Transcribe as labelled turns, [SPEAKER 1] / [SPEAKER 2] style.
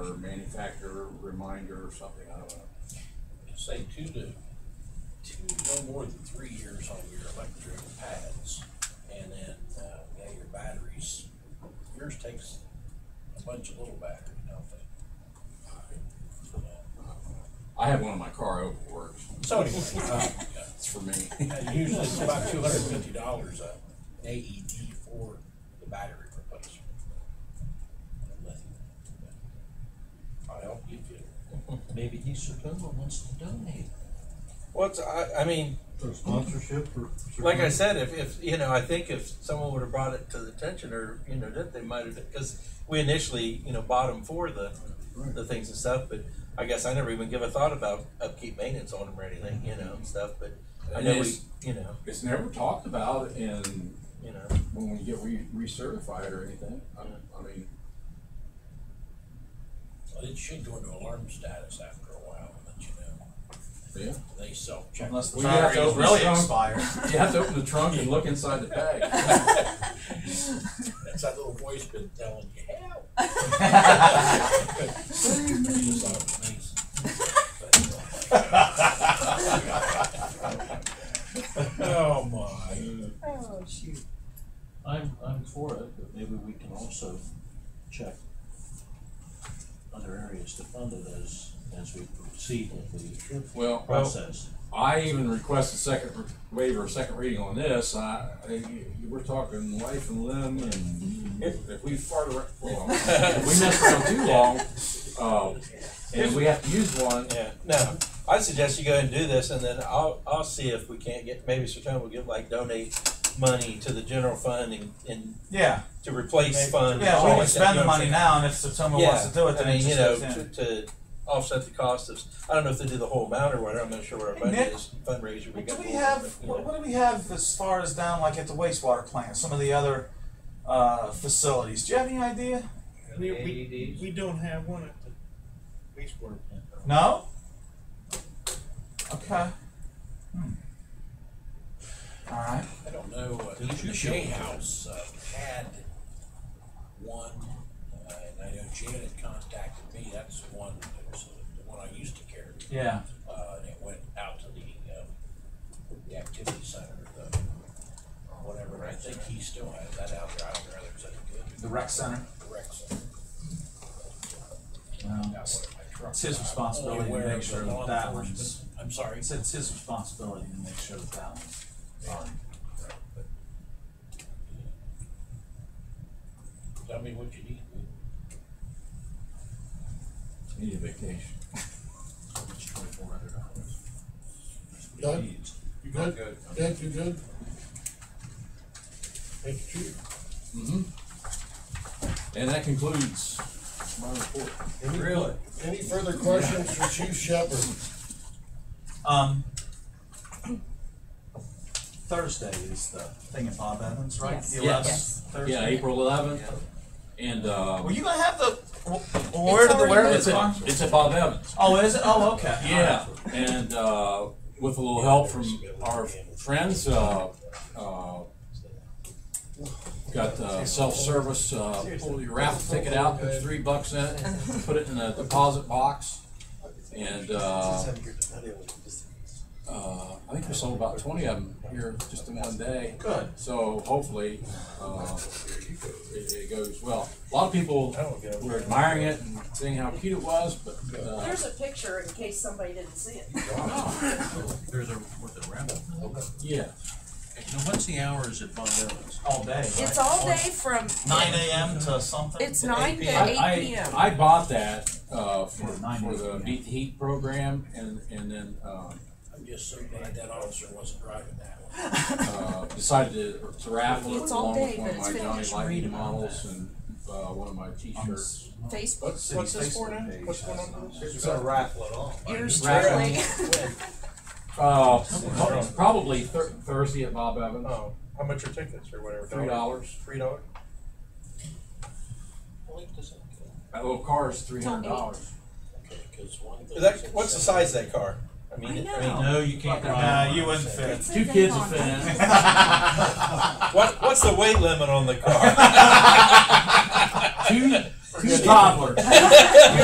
[SPEAKER 1] or manufacturer reminder or something, I don't know.
[SPEAKER 2] say two to, two, no more than three years on your electric pads. And then, uh, yeah, your batteries, yours takes a bunch of little batteries, don't they? Yeah.
[SPEAKER 1] I have one in my car, it overworks,
[SPEAKER 2] So anyway, uh,
[SPEAKER 1] it's for me.
[SPEAKER 2] yeah, usually it's about two hundred and fifty dollars a AED for the battery replacement. I'll help you if you.
[SPEAKER 3] Maybe East September wants to donate.
[SPEAKER 4] What's I, I mean,
[SPEAKER 5] For sponsorship or?
[SPEAKER 4] like I said, if, if you know, I think if someone would have brought it to the attention or you know that they might have because we initially you know bought them for the the things and stuff, but I guess I never even give a thought about upkeep maintenance on them or anything you know and stuff. But I
[SPEAKER 1] And
[SPEAKER 4] know we
[SPEAKER 1] it's-
[SPEAKER 4] you know
[SPEAKER 1] It's never talked about in,
[SPEAKER 4] you know
[SPEAKER 1] when we get re- recertified or anything, I, I mean,
[SPEAKER 2] Well, it should go into alarm status after a while, but you know,
[SPEAKER 1] yeah.
[SPEAKER 2] they self-check.
[SPEAKER 6] Unless the
[SPEAKER 1] We have
[SPEAKER 6] battery
[SPEAKER 1] to
[SPEAKER 6] is
[SPEAKER 1] open
[SPEAKER 6] really
[SPEAKER 1] some-
[SPEAKER 6] expired.
[SPEAKER 1] You have to open the trunk and look inside the bag.
[SPEAKER 2] That's that little voice been telling you, help. Just thought it was amazing. But, uh, Oh, my.
[SPEAKER 7] Oh, shoot.
[SPEAKER 3] I'm, I'm for it, but maybe we can also check other areas to fund it as, as we proceed with the
[SPEAKER 1] Well,
[SPEAKER 3] process.
[SPEAKER 1] I even requested second re- waiver, second reading on this, I, I- we're talking life and limb and if we fart around, well, if we mess around too long, uh, and we have to use one,
[SPEAKER 4] yeah no. I suggest you go ahead and do this, and then I'll I'll see if we can't get maybe Sertoma will give like donate money to the general fund and, and
[SPEAKER 6] Yeah,
[SPEAKER 4] to replace
[SPEAKER 6] Maybe-
[SPEAKER 4] fund.
[SPEAKER 6] yeah,
[SPEAKER 4] all
[SPEAKER 6] we can
[SPEAKER 4] that, you
[SPEAKER 6] spend
[SPEAKER 4] know
[SPEAKER 6] the
[SPEAKER 4] what I'm
[SPEAKER 6] money
[SPEAKER 4] saying?
[SPEAKER 6] now, and if someone wants to do it, then
[SPEAKER 4] I
[SPEAKER 6] it
[SPEAKER 4] mean, you
[SPEAKER 6] just
[SPEAKER 4] know,
[SPEAKER 6] goes
[SPEAKER 4] to,
[SPEAKER 6] in.
[SPEAKER 4] to offset the cost of, I don't know if they do the whole amount or whatever, I'm not sure what our
[SPEAKER 6] Hey,
[SPEAKER 4] budget
[SPEAKER 6] Nick,
[SPEAKER 4] is, fundraiser we
[SPEAKER 6] What do
[SPEAKER 4] got.
[SPEAKER 6] we
[SPEAKER 4] going,
[SPEAKER 6] have,
[SPEAKER 4] but, you
[SPEAKER 6] what,
[SPEAKER 4] know.
[SPEAKER 6] what do we have as far as down, like at the wastewater plant, some of the other, uh, facilities, do you have any idea?
[SPEAKER 8] We, we, we don't have one at the wastewater plant.
[SPEAKER 6] No? Okay. Hmm. Alright,
[SPEAKER 2] I don't know, uh, the Shea House uh, had one, uh, and I know Janet contacted me, that's the one, that was the one I used to carry.
[SPEAKER 6] yeah,
[SPEAKER 2] uh, and it went out to the, um, the activity center, the, or whatever, I think he still has that out there, I don't know whether it's any
[SPEAKER 6] the rec center,
[SPEAKER 2] good, correct, so.
[SPEAKER 6] well,
[SPEAKER 2] Got one in my truck.
[SPEAKER 6] It's his
[SPEAKER 2] I'm
[SPEAKER 6] responsibility
[SPEAKER 2] only
[SPEAKER 6] to
[SPEAKER 2] aware
[SPEAKER 6] make
[SPEAKER 2] of the
[SPEAKER 6] sure that
[SPEAKER 2] law
[SPEAKER 6] that
[SPEAKER 2] enforcement.
[SPEAKER 6] one's-
[SPEAKER 2] I'm sorry,
[SPEAKER 6] he said it's his responsibility to make sure that that one's on.
[SPEAKER 2] but. Tell me what you need,
[SPEAKER 1] need a vacation.
[SPEAKER 3] It's twenty-four hundred dollars.
[SPEAKER 9] Doug, you
[SPEAKER 1] Not
[SPEAKER 9] good? Doug, you good? Thank you, Chief.
[SPEAKER 1] hmm And that concludes my report.
[SPEAKER 9] Any- Any further questions for Chief Shepherd?
[SPEAKER 6] Um, Thursday is the thing at Bob Evans, right?
[SPEAKER 7] Yes.
[SPEAKER 6] The
[SPEAKER 1] Yes.
[SPEAKER 6] 11th
[SPEAKER 7] Yes.
[SPEAKER 6] Thursday.
[SPEAKER 1] Yeah, April eleventh, and, uh,
[SPEAKER 6] Were you gonna have the? wh- Where did the where did
[SPEAKER 1] it's
[SPEAKER 6] the car?
[SPEAKER 1] at, it's at Bob Evans.
[SPEAKER 6] Oh, is it? Oh, okay.
[SPEAKER 1] Yeah, and, uh, with a little help from our friends, uh, uh, got, uh, self-service, uh, pull your raffle ticket out, put three bucks in it, put it in a deposit box, and, uh, uh, I think we sold about twenty of them here just in one day.
[SPEAKER 6] Good.
[SPEAKER 1] So hopefully, uh, it, it goes well. A lot of people were admiring it and saying how cute it was, but, uh,
[SPEAKER 7] Here's a picture in case somebody didn't see it.
[SPEAKER 3] There's a, with the raffle.
[SPEAKER 1] yeah.
[SPEAKER 3] Now, what's the hours at Von Dillon's?
[SPEAKER 6] All day. Right?
[SPEAKER 7] It's all day from,
[SPEAKER 6] Nine a.m. to something.
[SPEAKER 7] it's nine to
[SPEAKER 1] I-
[SPEAKER 7] eight PM.
[SPEAKER 1] I, I bought that, uh, for,
[SPEAKER 6] Yeah, nine
[SPEAKER 1] for the
[SPEAKER 6] years, yeah.
[SPEAKER 1] Beat the Heat program and, and then, uh,
[SPEAKER 2] I'm just so glad that officer wasn't driving that one.
[SPEAKER 1] uh, decided to- to raffle it
[SPEAKER 7] It's all
[SPEAKER 1] along with
[SPEAKER 7] day,
[SPEAKER 1] one of
[SPEAKER 7] but it's
[SPEAKER 1] my
[SPEAKER 7] been-
[SPEAKER 1] Johnny
[SPEAKER 7] Just
[SPEAKER 1] Lightning
[SPEAKER 6] read about
[SPEAKER 1] models and, uh, one of my t-shirts.
[SPEAKER 7] Facebook
[SPEAKER 4] What's, what's this for now? What's going on? with this?
[SPEAKER 8] It's not a raffle at all.
[SPEAKER 7] years
[SPEAKER 1] Right.
[SPEAKER 7] sterling.
[SPEAKER 1] Uh, probably Thur- Thursday at Bob Evans,
[SPEAKER 4] Oh, how much are tickets or whatever?
[SPEAKER 1] three dollars.
[SPEAKER 4] Three dollars?
[SPEAKER 1] That little car is three hundred dollars.
[SPEAKER 4] Is that, what's the size of that car? I mean,
[SPEAKER 7] I
[SPEAKER 4] I mean,
[SPEAKER 7] know.
[SPEAKER 3] No, you can't.
[SPEAKER 6] Nah, you wouldn't fit.
[SPEAKER 1] Two kids have been in.
[SPEAKER 4] what, what's the weight limit on the car?
[SPEAKER 1] Two, two toddlers.